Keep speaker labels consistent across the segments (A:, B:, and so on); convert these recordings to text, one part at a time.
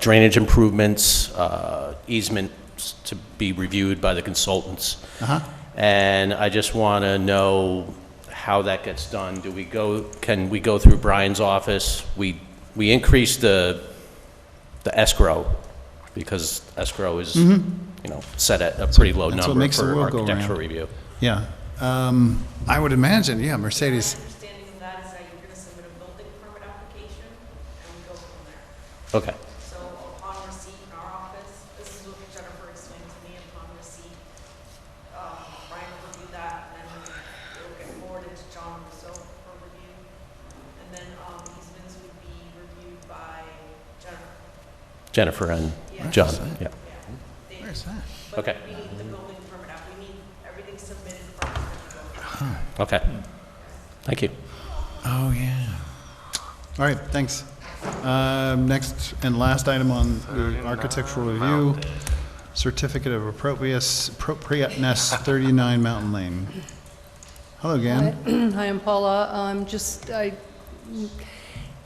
A: drainage improvements, uh, easements to be reviewed by the consultants.
B: Uh-huh.
A: And I just want to know how that gets done. Do we go, can we go through Brian's office? We, we increased the, the escrow because escrow is, you know, set at a pretty low
B: Mm-hmm. That's what
A: number
B: makes the
A: for
B: world go round.
A: architectural review.
B: Yeah. Um, I would imagine, yeah, Mercedes.
C: My understanding of that is that you're gonna submit a building permit application, and we go from there.
A: Okay,
C: So upon receipt in our office, this is what Jennifer explained to me, upon receipt, um, Brian will review that, and then it'll get forwarded to John Russo for review. And then, um, easements would be reviewed by Jennifer,
A: Jennifer and
C: Yeah.
A: John, yeah.
C: yeah. They-
B: Where's that?
C: But
A: Okay.
C: we need the building permit app, we need everything submitted for us to go.
A: Okay. Thank you.
B: Oh, yeah. All right, thanks. Um, Next and last item on the architectural review, certificate of appropriateness, appropriateness, 39 Mountain Lane. Hello, Gan.
D: Hi, I'm Paula. Um, Just, I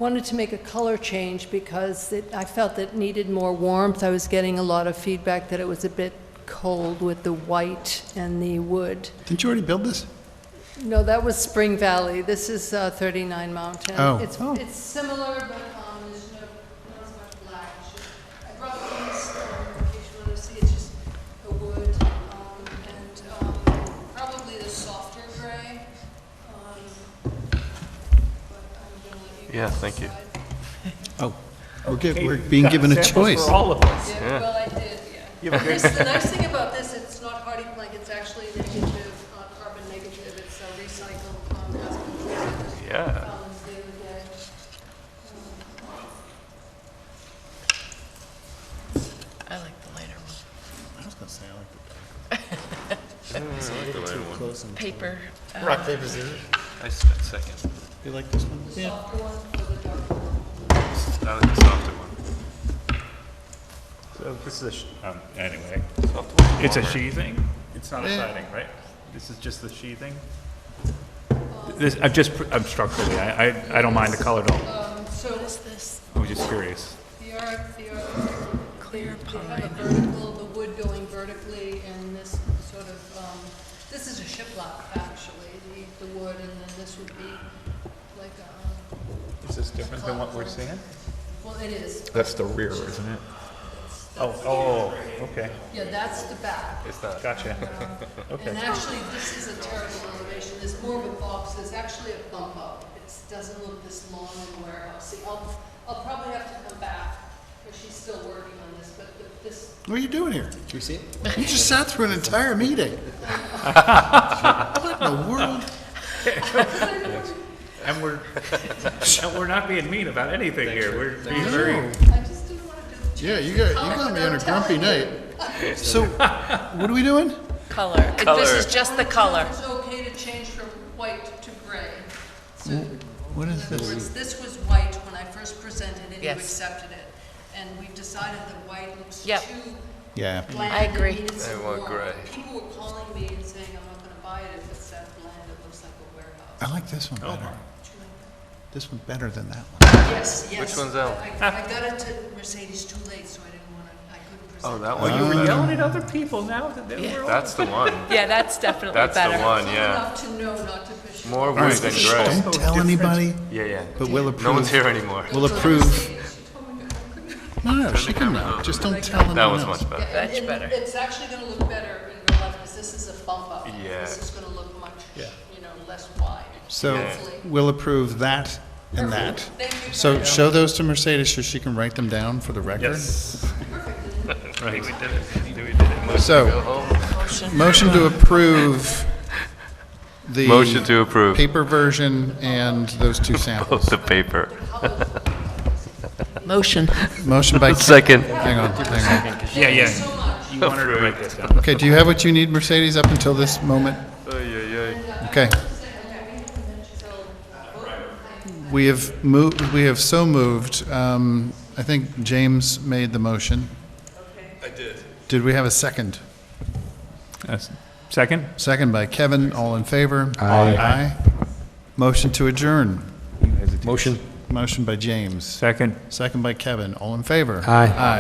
D: wanted to make a color change because it- I felt it needed more warmth. I was getting a lot of feedback that it was a bit cold with the white and the wood.
B: Didn't you already build this?
D: No, that was Spring Valley. This is uh, 39 Mountain.
B: Oh.
D: It's-
B: Oh.
D: It's similar, but um, there's no, not as much black. It's just- I brought these, um, in case you want to see, it's just the wood um, and um, probably the softer gray. um, But I'm going to let you.
E: Yeah,
D: guys
E: thank you.
D: decide.
B: Oh. We're gi- we're being given a choice.
E: all of us.
D: Yeah, well, I did, yeah.
E: You have a great-
D: This- The nice thing about this, it's not hardy plank, it's actually negative, uh, carbon negative, it's uh, recycled, um, has control.
E: Yeah.
D: Um, they would get, um,
F: I like the lighter one. Paper.
E: I
F: uh,
E: s- second.
B: You like this one? Yeah.
E: I like the softer one.
G: So this is a, sh- um, anyway,
E: Softer one.
G: it's a
E: warmer.
G: sheathing? It's not a
B: Eh.
G: siding, right? This is just the sheathing? This, I'm just, pr- I'm structurally, I, I, I don't mind the color at all.
D: Um, So
F: What is this?
G: I was just curious.
D: the arc, the arc,
F: Clear
D: they have a
F: pine.
D: vertical, the wood going vertically, and this sort of, um, this is a shiplap, actually, the, the wood, and then this would be like a, um,
G: Is this different than what we're seeing?
D: well, it is,
G: That's the rear, isn't it? Oh, oh, okay,
D: yeah, that's the back.
G: gotcha.
D: And actually, this is a terrible elevation, there's more of a box, there's actually a bump up. It doesn't look this long and warehousey. I'll, I'll probably have to come back, but she's still working on this, but the- this,
B: What are you doing here? Did you see it? You just sat through an entire meeting. What in the world?
G: And we're, and we're not being mean about anything here, we're being very,
D: I just didn't want to do the
B: Yeah, you got, you got me on a grumpy night. So, what are we doing?
F: Color. It- This is just the color.
D: It's okay to change from white to gray. So,
B: What
D: in
B: is
D: other
B: this?
D: words, this was white when I first presented it, you
F: Yes.
D: accepted it. And we've decided that white looks too
F: Yep.
B: Yeah.
D: bland.
F: I
D: and
F: agree.
D: needed some
E: I want
D: warmth.
E: gray.
D: People were calling me and saying, I'm not gonna buy it if it's that bland, it looks like a warehouse.
B: I like this one better. This one better than that one.
D: Yes, yes.
E: Which one's
D: but
E: out?
D: I I got it to Mercedes too late, so I didn't wanna, I couldn't present.
E: Oh,
D: it.
E: that one. you were
G: yelling at other people now that they were.
E: That's the one.
F: Yeah, that's definitely better.
E: That's the one, yeah.
D: Enough to know not to push. it.
E: More wood than
B: Shh,
E: gray.
B: Don't tell anybody,
E: Yeah, yeah.
B: but we'll
E: No one's
B: approve.
E: here anymore.
B: We'll approve. No, no, she can know. Just don't tell anyone
E: That was
B: else.
E: much better.
D: Yeah, and-
F: Much
D: and
F: better.
D: It's actually gonna look better in real life, because this is a bump up.
E: Yeah.
D: This is gonna look much, you know, less wide.
B: So,
D: Hopefully.
B: we'll approve that and that.
D: Thank you.
B: So,
D: guys.
B: show those to Mercedes so she can write them down for the record.
G: Yes. Right.
B: So, motion to approve the.
E: Motion to approve.
B: Paper version and those two samples.
E: The paper.
F: Motion.
B: Motion by.
E: Second.
B: Hang on, hang on.
G: Yeah, yeah. You wanted to write this down.
B: Okay, do you have what you need, Mercedes, up until this moment? Okay. We have moved, we have so moved, um, I think James made the motion. I did. Did we have a second?
G: That's- Second?
B: Second by Kevin, all in favor? Aye. Motion to adjourn.
H: Motion.
B: Motion by James,
G: Second.
B: second by Kevin. All in favor?
H: Aye.
B: Aye.